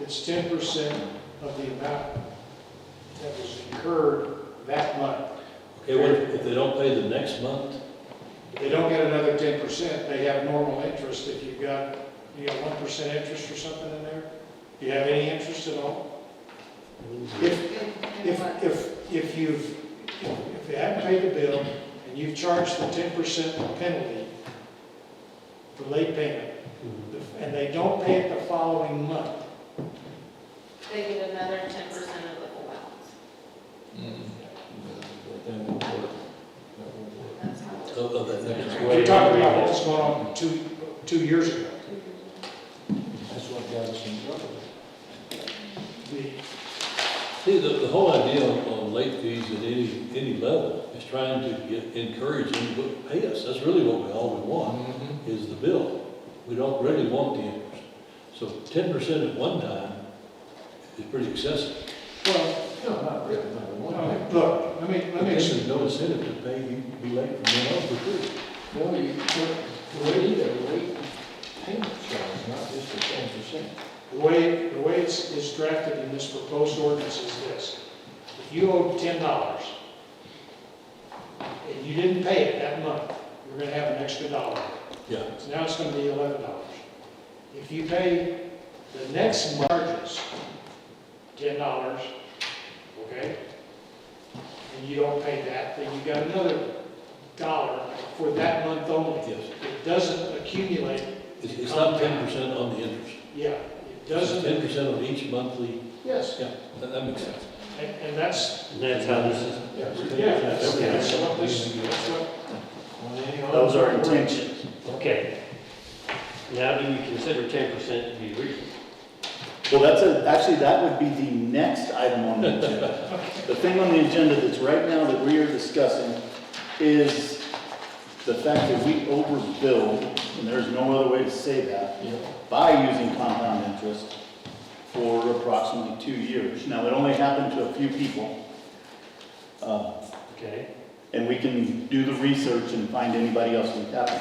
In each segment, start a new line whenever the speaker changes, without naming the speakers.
It's ten percent of the amount that was incurred that month.
Okay, what if if they don't pay the next month?
If They don't get another ten percent, they have normal interest if you've got, you got one percent interest or something in there? Do you have any interest at all? If, if, if, if you've, if you haven't paid the bill and you've charged the ten percent penalty for late payment, and they don't pay it the following month,
They get another ten percent of the full balance. That's how
Of- of that next
We're talking about
month?
what's going on two, two years ago.
That's what got us in trouble.
The-
See, the, the whole idea on, on late fees at any, any level is trying to get, encourage them to pay us. That's really what we, all we want, is the bill. We don't really want the interest. So ten percent at one time is pretty excessive.
Well,
No, not really, not
no,
one.
look, let me, let
But
me,
this
explain.
is no incentive to pay you, to be late from then on for free.
No, you, the rate, the rate payment charge, not just the ten percent.
the way, the way it's, it's drafted in this proposed ordinance is this. If you owe ten dollars, and you didn't pay it that month, you're gonna have an extra dollar.
Yeah.
So now it's gonna be eleven dollars. If you pay the next charges, ten dollars, okay? And you don't pay that, then you got another dollar for that month only.
Yes.
It doesn't accumulate,
It's, it's not ten percent on the interest.
yeah, it
Ten
doesn't,
percent on each monthly,
yes,
yeah, that, that makes sense.
and, and that's,
And that's how this is,
yeah, that's, that's what this, that's what
those are intentions. Okay. Now, do you consider ten percent to be reasonable?
Well, that's a, actually, that would be the next item on the agenda. The thing on the agenda that's right now that we are discussing is the fact that we overbilled, and there's no other way to say that, by using compound interest for approximately two years. Now, it only happened to a few people, uh,
Okay?
and we can do the research and find anybody else who happened.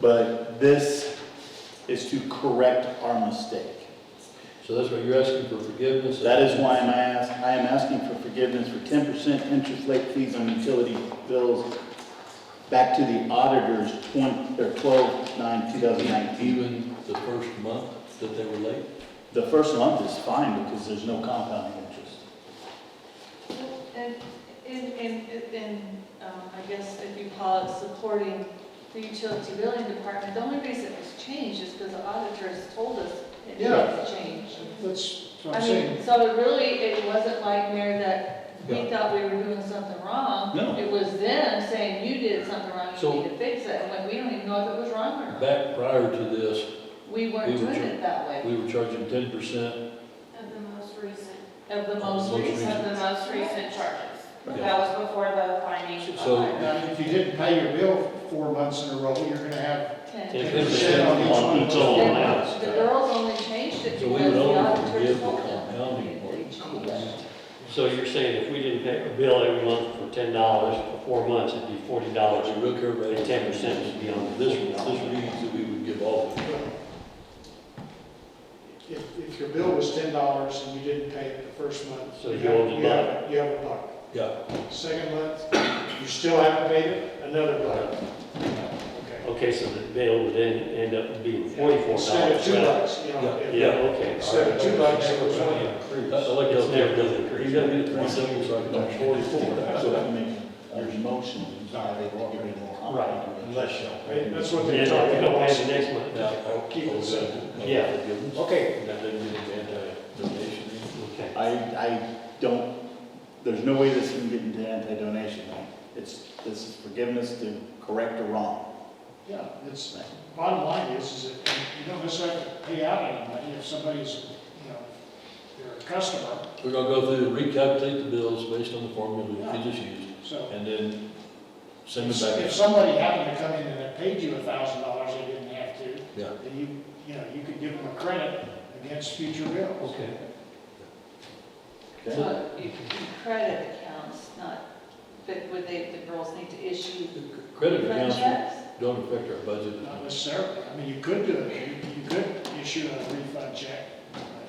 But this is to correct our mistake.
So that's what you're asking for forgiveness?
That is why I'm ask, I am asking for forgiveness for ten percent interest late fees on utility bills back to the auditors twenty, or twelve nine two thousand nineteen.
Even the first month that they were late?
The first month is fine because there's no compounding interest.
And, and, and, and, um, I guess if you call it supporting the utility billing department, the only reason it's changed is because the auditors told us it needed to change.
That's what I'm
I
saying.
mean, so it really, it wasn't like, Mayor, that we
Yeah.
thought we were doing something wrong.
No.
It was them saying you did something wrong,
So-
you need to fix it, and when we don't even know if it was wrong or not.
Back prior to this,
We weren't
we were
doing
ju-
it that way,
we were charging ten percent.
Of the most recent,
of the most
Most
recent.
of the most recent charges. That
Yeah.
was before the finding.
So-
Now, if you didn't pay your bill four months in a row, you're gonna have
Okay.
ten
10%
percent on each
on
one.
each
of
Oh,
those.
one. wow.
And The girls only changed it
So we
because
would
the
only
auditors
forgive the
told them.
compounding
They
part.
changed it.
So you're saying if we didn't pay a bill every month for ten dollars for four months, it'd be forty dollars.
But you look here,
And ten percent would be on
This,
this
this
one.
reads that we would give all of it.
If, if your bill was ten dollars and you didn't pay it the first month.
So
you
you
have-
owed a
you have- You have a buck.
Yeah,
Second month, you still haven't paid it, another buck. Okay.
Okay, so the bill would then end up being forty-four
Instead of
dollars.
two bucks, you know.
Yeah.
if-
Yeah, okay, all
Instead
right.
of two bucks, it was one.
I I like
It's
those.
never gonna increase.
You gotta get three seconds, like, like forty-four.
So that makes your motion valid to get rid of the compounding
Right,
interest.
unless you-
Right, That's what
Yeah,
they're
if we
talking
don't
about.
pay the next month.
Yeah, I'll
Keep it
simple.
Yeah.
Okay. That doesn't get into anti-donation.
Okay.
I, I don't, there's no way this can get into anti-donation. right? It's, this is forgiveness to correct a wrong.
Yeah, it's, bottom line is, is that you don't necessarily have to pay out any money if somebody's, you know, they're a customer,
We're gonna go through, recalculate the bills based on the formula that you just used,
so.
and then send it
If
back.
somebody happened to come in and had paid you a thousand dollars, they didn't have to,
Yeah.
then you, you know, you could give them a credit against future bills.
Okay.
Okay?
So you can do credit accounts, not, but would they, the girls need to issue
Credit
credit
accounts
checks?
don't affect our budget.
Not necessarily, I mean, you could do it, you, you could issue a refund check